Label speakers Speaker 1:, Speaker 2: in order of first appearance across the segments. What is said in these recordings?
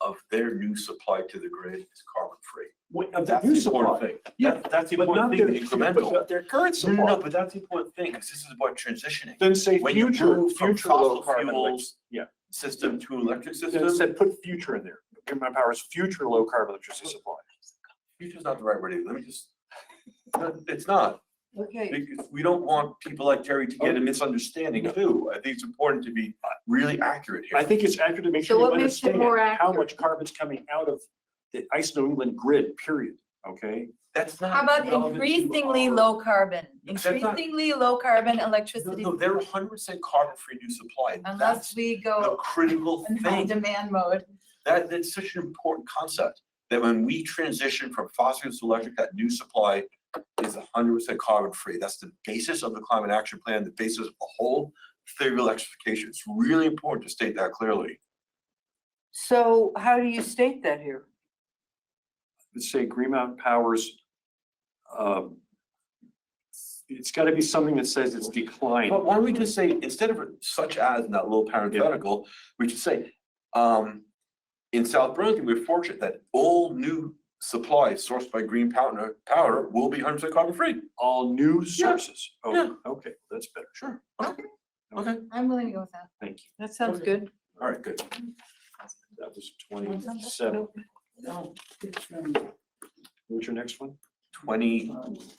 Speaker 1: of their new supply to the grid is carbon free.
Speaker 2: Wait, Of the
Speaker 1: That's
Speaker 2: new
Speaker 1: the important
Speaker 2: supply.
Speaker 1: thing. Yeah, that's the
Speaker 2: But not
Speaker 1: important
Speaker 2: their,
Speaker 1: thing, the incremental.
Speaker 2: but their current
Speaker 1: No, no, no,
Speaker 2: supply.
Speaker 1: but that's the important thing, because this is about transitioning.
Speaker 2: Then say
Speaker 1: When you
Speaker 2: future,
Speaker 1: move from
Speaker 2: future low
Speaker 1: fossil
Speaker 2: carbon. elec-
Speaker 1: fuels
Speaker 2: yeah.
Speaker 1: system to electric
Speaker 2: Then
Speaker 1: system,
Speaker 2: said put future in there. Combined powers, future low carbon electricity supply.
Speaker 1: future's not the right word, let me just, No, it's not.
Speaker 3: Okay,
Speaker 1: Because we don't want people like Terry to
Speaker 2: Oh.
Speaker 1: get a misunderstanding too. I think it's important to be really accurate
Speaker 2: I
Speaker 1: here.
Speaker 2: think it's accurate to make
Speaker 3: So
Speaker 2: sure you
Speaker 3: what makes it
Speaker 2: understand
Speaker 3: more
Speaker 2: how
Speaker 3: accurate?
Speaker 2: much carbon's coming out of the ICE New England grid, period, okay?
Speaker 1: That's not.
Speaker 3: how about
Speaker 1: relevant to
Speaker 3: increasingly
Speaker 1: our-
Speaker 3: low carbon,
Speaker 1: That's not-
Speaker 3: increasingly low carbon
Speaker 1: No,
Speaker 3: electricity?
Speaker 1: no, they're hundred percent carbon free new supply.
Speaker 3: Unless
Speaker 1: That's
Speaker 3: we
Speaker 1: the
Speaker 3: go
Speaker 1: critical
Speaker 3: in high
Speaker 1: thing.
Speaker 3: demand mode.
Speaker 1: That, that's such an important concept, that when we transition from fossil fuels to electric, that new supply is hundred percent carbon free. That's the basis of the climate action plan, the basis of the whole theory of electrification. It's really important to state that clearly.
Speaker 4: So how do you state that here?
Speaker 2: Let's say Greenmount Powers, um, it's gotta be something that says it's declined.
Speaker 1: But why don't we just say, instead of such as in that little parenthetical, we should say, um, in South Burlington, we're fortunate that all new supply sourced by green power, power will be hundred percent carbon free.
Speaker 2: All new
Speaker 1: Yeah,
Speaker 2: sources. Oh,
Speaker 1: yeah.
Speaker 2: Okay, that's better.
Speaker 1: Sure.
Speaker 3: Okay.
Speaker 1: Okay,
Speaker 3: I'm willing to go with that.
Speaker 2: Thank you.
Speaker 4: That sounds
Speaker 1: Okay.
Speaker 4: good.
Speaker 1: all right, good.
Speaker 2: That was twenty-seven. What's your next one?
Speaker 1: Twenty,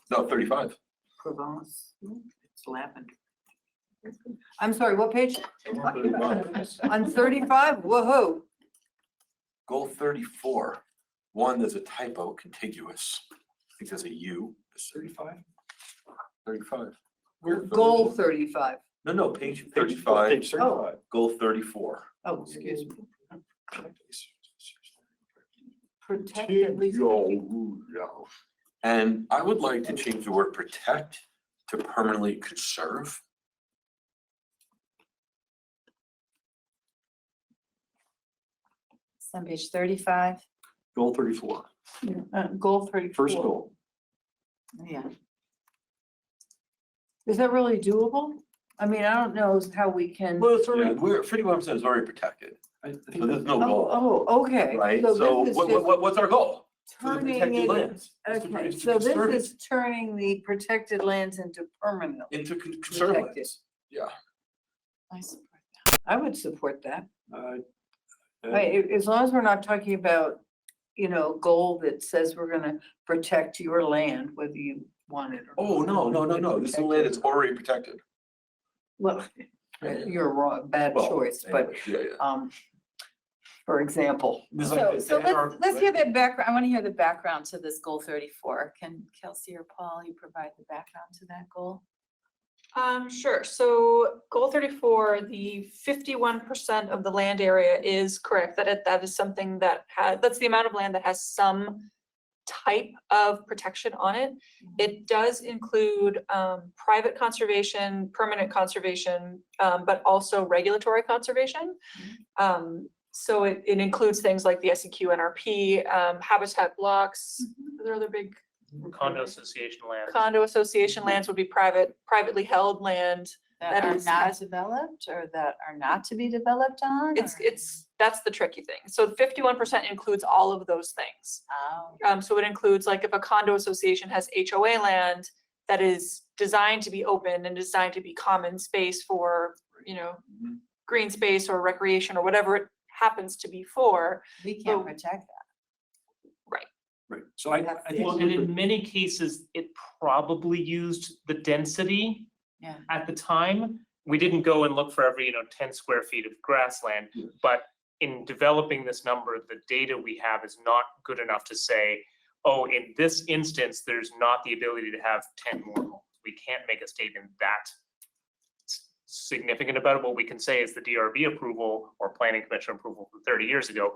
Speaker 1: no, thirty-five.
Speaker 4: Provence, it's lavender. I'm sorry, what page? On thirty-five, whoa
Speaker 1: Goal thirty-four, one, there's a typo, contiguous. I think there's a U, it's
Speaker 2: Thirty-five?
Speaker 1: thirty-five.
Speaker 4: goal thirty-five.
Speaker 1: No, no, page
Speaker 2: Thirty-five.
Speaker 1: thirty-five,
Speaker 2: Page thirty-five.
Speaker 1: goal thirty-four.
Speaker 4: Oh, excuse me. Protect at least.
Speaker 1: And I would like to change the word protect to permanently conserve.
Speaker 3: It's on page thirty-five.
Speaker 2: Goal thirty-four.
Speaker 4: Uh, Goal thirty-four.
Speaker 2: First goal.
Speaker 4: Yeah. Is that really doable? I mean, I don't know how we can.
Speaker 1: Well, it's already,
Speaker 2: already-
Speaker 1: we're, fifty-one percent is already protected,
Speaker 2: I
Speaker 1: so
Speaker 2: think
Speaker 1: there's no goal,
Speaker 4: Oh, oh, okay.
Speaker 1: right? So
Speaker 4: this is
Speaker 1: what,
Speaker 4: just
Speaker 1: what, what- what's our goal? For the
Speaker 4: Turning
Speaker 1: protected
Speaker 4: it,
Speaker 1: lands. It's to-
Speaker 4: okay,
Speaker 1: it's to
Speaker 4: so this
Speaker 1: conserve it,
Speaker 4: is turning the protected lands into permanent.
Speaker 1: Into con- conserve
Speaker 4: protected.
Speaker 1: lands, yeah.
Speaker 4: I support that. I would support that.
Speaker 2: Uh, uh,
Speaker 4: I- a- As long as we're not talking about, you know, a goal that says we're gonna protect your land, whether you want it or.
Speaker 1: Oh, no, no, no, no, this is land that's already protected.
Speaker 4: Well, you're wrong, bad
Speaker 1: Well, eh,
Speaker 4: choice, but,
Speaker 1: anyways, Yeah, yeah.
Speaker 4: um, for example.
Speaker 1: There's like
Speaker 3: So,
Speaker 1: this-
Speaker 3: so
Speaker 1: there are-
Speaker 3: let's, let's hear the background, I want to hear the background to this goal thirty-four. Can Kelsey or Paul, you provide the background to that goal?
Speaker 5: Um, sure. So goal thirty-four, the fifty-one percent of the land area is correct, that it, that is something that has, that's the amount of land that has some type of protection on it. It does include, um, private conservation, permanent conservation, um, but also regulatory conservation. Um, so it, it includes things like the E SEQ NRP, um, habitat blocks, there are other big
Speaker 6: condo association land.
Speaker 5: condo association lands would be private, privately held land.
Speaker 3: That
Speaker 5: That
Speaker 3: are
Speaker 5: is-
Speaker 3: not developed or that are not to be developed on?
Speaker 5: It's,
Speaker 3: or-
Speaker 5: it's, that's the tricky thing. So fifty-one percent includes all of those things.
Speaker 3: Oh,
Speaker 5: Um, so it includes like if a condo association has HOA land that is designed to be open and designed to be common space for, you know,
Speaker 1: Mhm.
Speaker 5: green space or recreation or whatever it happens to be for.
Speaker 3: we can't
Speaker 5: So-
Speaker 3: protect that.
Speaker 2: Right, so I,
Speaker 3: That's
Speaker 2: I
Speaker 3: the
Speaker 2: think
Speaker 6: Well, and in many cases, it probably used the density.
Speaker 3: Yeah.
Speaker 6: At the time, we didn't go and look for every, you know, ten square feet of grassland.
Speaker 2: Yeah.
Speaker 6: But in developing this number, the data we have is not good enough to say, oh, in this instance, there's not the ability to have ten more homes. We can't make a statement that s- significant about it. What we can say is the DRB approval or planning commission approval from thirty years ago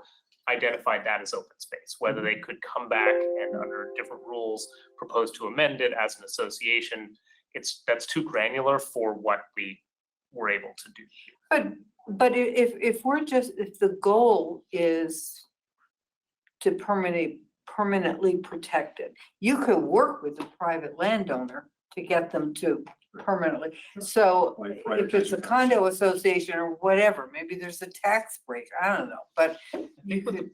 Speaker 6: identified that as open space, whether they could come back and under different rules propose to amend it as an association. It's, that's too granular for what we were able to do.
Speaker 4: But, but i- if, if we're just, if the goal is to permanently, permanently protect it, you could work with a private landowner to get them to permanently. So
Speaker 2: Like
Speaker 4: if it's a
Speaker 2: privatization.
Speaker 4: condo association or whatever, maybe there's a tax break, I don't know, but you could,